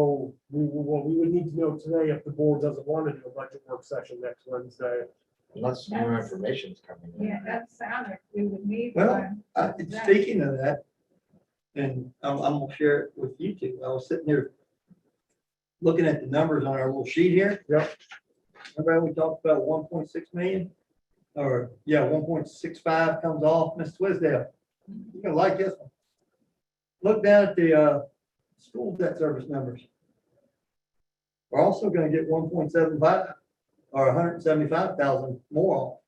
So we, well, we would need to know today if the board doesn't want to do a budget work session next Wednesday. Unless new That's- information's coming in. Yeah, that sounded, we would need Well, one. Uh, Speaking of that, and I'm, I'm gonna share it with you two, I was sitting here looking at the numbers on our little sheet here. Yep. Remember how we talked about one point six million? Or, yeah, one point six five comes off, Miss Twisdale, you're gonna like this one. Look down at the, uh, school debt service numbers. We're also gonna get one point seven five, or hundred and seventy-five thousand more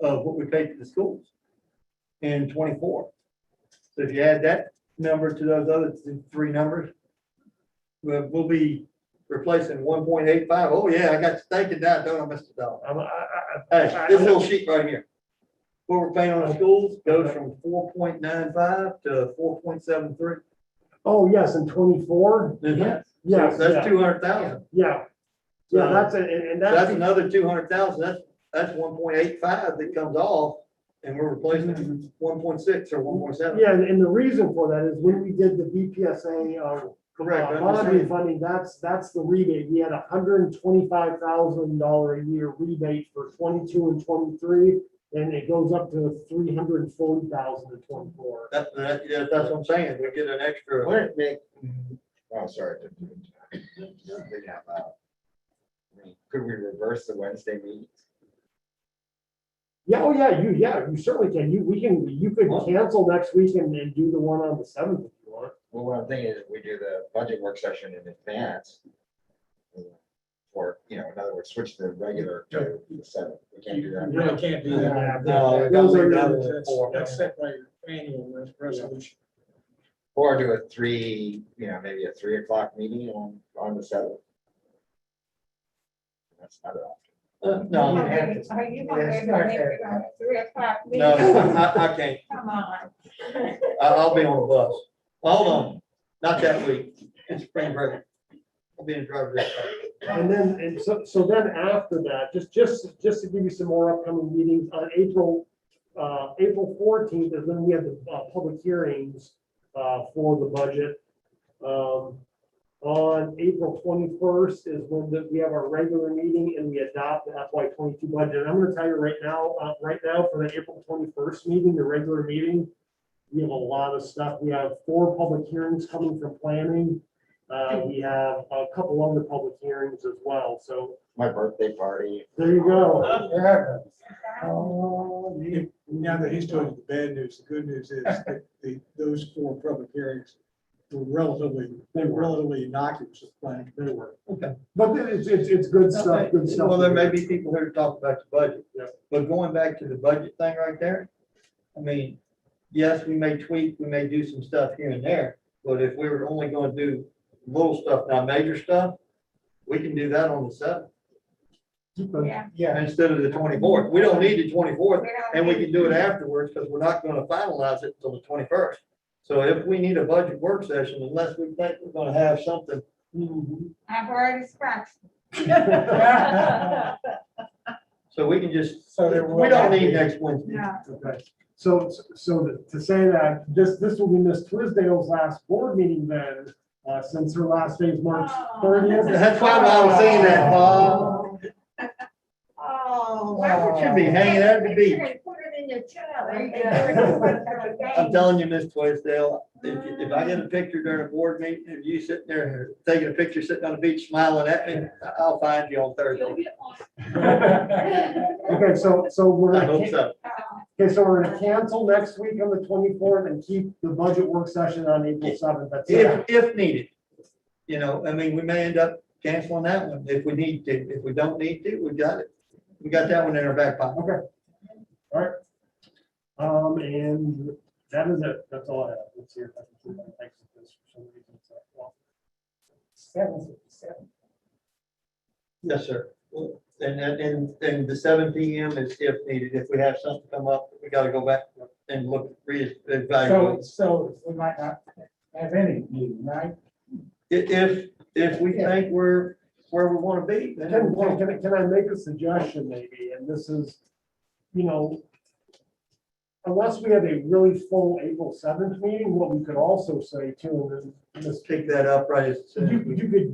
of what we paid to the schools in twenty-four. So if you add that number to those other th- three numbers, we'll, we'll be replacing 1.85. Oh yeah, I got to thinking that, don't I, Mr. Dollar? I'm, I, I, Hey, this little sheet right here. What we're paying on the schools goes from four point nine five to four point seven three. oh, yes, in twenty-four? Yeah, That's yeah, two hundred thousand. yeah. Yeah, that's, it, and, and That's that's, another two hundred thousand. That's, that's one point eight five that comes off and we're replacing one point six or one point seven. yeah, and, and the reason for that is when we did the BPSA, uh, Correct. I Uh, Bond understand. refunding, that's, that's the rebate. We had a hundred and twenty-five thousand dollar a year rebate for twenty-two and twenty-three, and it goes up to three hundred and forty thousand in twenty-four. That, that, yeah, that's what I'm saying. We get an extra. Would it make, oh, sorry. I didn't mean to- I'm thinking out loud. I mean, Could we reverse the Wednesday meeting? Yeah, oh yeah, you, yeah, you certainly can. You, we can, you could cancel next week and, and do the one on the seventh if you want. Well, what I'm thinking is we do the budget work session in advance. Or, you know, in other words, switch the regular to the seventh. We can't do that. You really can't do that. Yeah, No, that- Those are, gotta leave the- that. That's, that's set by your annual res- resolution. Or do a three, you know, maybe a three o'clock meeting on, on the seventh. That's not an option. Uh, Are No, you you have gonna- to. are you gonna Yeah, be it's able to not make fair. it on three o'clock meeting? No, I, I can't. Come on. I- I'll be on the bus. Well, Hold on, not that week, it's spring break. I'll be in driver's ed. and then, and so, so then after that, just, just, just to give you some more upcoming meetings, on April, uh, April fourteenth is when we have the, uh, public hearings, uh, for the budget. Um, on April twenty-first is when the- we have our regular meeting and we adopt the FY twenty-two budget. I'm gonna tell you right now, uh, right now, for the April twenty-first meeting, the regular meeting, we have a lot of stuff. We have four public hearings coming from planning. Uh, we have a couple other public hearings as well, so My birthday party. there you Uh, go. Now that he's told you the bad news, the good news is that the, those four public hearings were relatively, they were relatively innocuous with planning. They were. But it's, it's, it's good stuff, good stuff. Well, there may be people here to talk about the budget, Yeah. but going back to the budget thing right there, I mean, yes, we may tweak, we may do some stuff here and there, but if we were only gonna do little stuff, not major stuff, we can do that on the seventh, Yeah. Yeah. instead of the twenty-fourth. We don't need the twenty-fourth, we don't And we need- can do it afterwards, because we're not gonna finalize it until the twenty-first. So if we need a budget work session, unless we think we're gonna have something, I've already scratched. Yeah. so we can just, So we there will don't not be- need next Wednesday. No, Okay, so, so to say that, this, this will be Miss Twisdale's last board meeting then, uh, since her last day is March thirtieth. That's why I was saying that, Bob. oh. Why would you wow. be hanging out at the Make sure beach? you Put it in your chair. and- There you go. I'm telling you, Miss Twisdale, if, if I get a picture during a board meeting, of you sitting there, taking a picture, sitting on the beach smiling at me, I'll find you on Thursday. You'll get one. Okay, so, so we're I gonna, hope can- so. Oh, okay, so we're gonna cancel next week on the twenty-fourth and keep the budget work session on April seventh, that's it. If, if needed. You know, I mean, we may end up canceling that one if we need to. If we don't need to, we got it. We got that one in our back pocket. Um, and that is it, that's all I have, let's hear. if I can keep my legs like this for some reason. It's like, well, Yes, sir. And, and- and, and the seven P M is if needed. If we have something come up, we gotta go back and look, reevaluate. so we might not have any meeting, right? If, if, if we think we're where we wanna be, then we Can, wanna can, can I- can I make a suggestion maybe, and this is, you know, unless we have a really full April seventh meeting, what we could also say too, and then, Let's pick that up right uh, as soon as we. you, you could